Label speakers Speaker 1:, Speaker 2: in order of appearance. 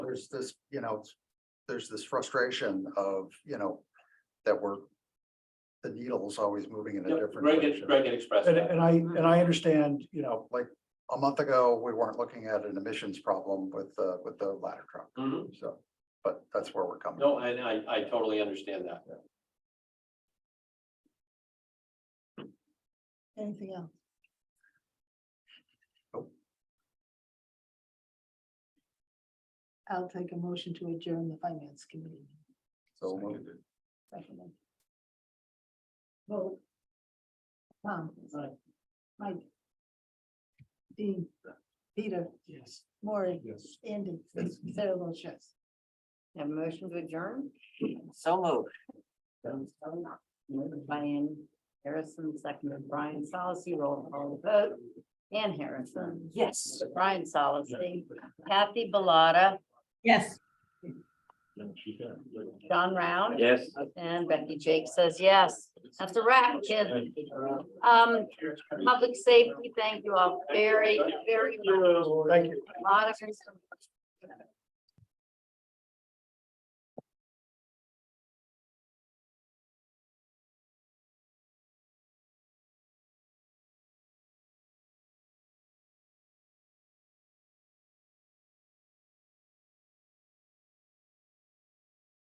Speaker 1: there's this, you know, there's this frustration of, you know, that we're. The needle's always moving in a
Speaker 2: Yep,
Speaker 1: different
Speaker 2: Greg, had-
Speaker 1: direction.
Speaker 2: Greg had expressed
Speaker 3: And,
Speaker 2: that.
Speaker 3: and I, and I understand, you know,
Speaker 1: Like, a month ago, we weren't looking at an emissions problem with, uh, with the ladder truck,
Speaker 2: Mhm.
Speaker 1: so, but that's where we're coming.
Speaker 2: No, and I, I totally understand that.
Speaker 4: Anything else?
Speaker 1: Nope.
Speaker 4: I'll take a motion to adjourn the finance committee.
Speaker 1: So moved.
Speaker 4: Recommend. Vote. Tom. Mike. Dean. Peter.
Speaker 2: Yes.
Speaker 4: Maury.
Speaker 2: Yes.
Speaker 4: Andy.
Speaker 1: Yes.
Speaker 4: Sarah votes yes.
Speaker 5: Have a motion to adjourn? So moved. Moved by Ann Harrison, seconded Brian Solace, roll call vote. Ann Harrison. Yes. Brian Solace, Kathy Bellata,
Speaker 6: Yes.
Speaker 5: John Round.
Speaker 2: Yes.
Speaker 5: And Becky Jake says yes. That's a wrap, kids. Um, public safety, thank you all very, very much.
Speaker 2: Thank you.
Speaker 5: A lot of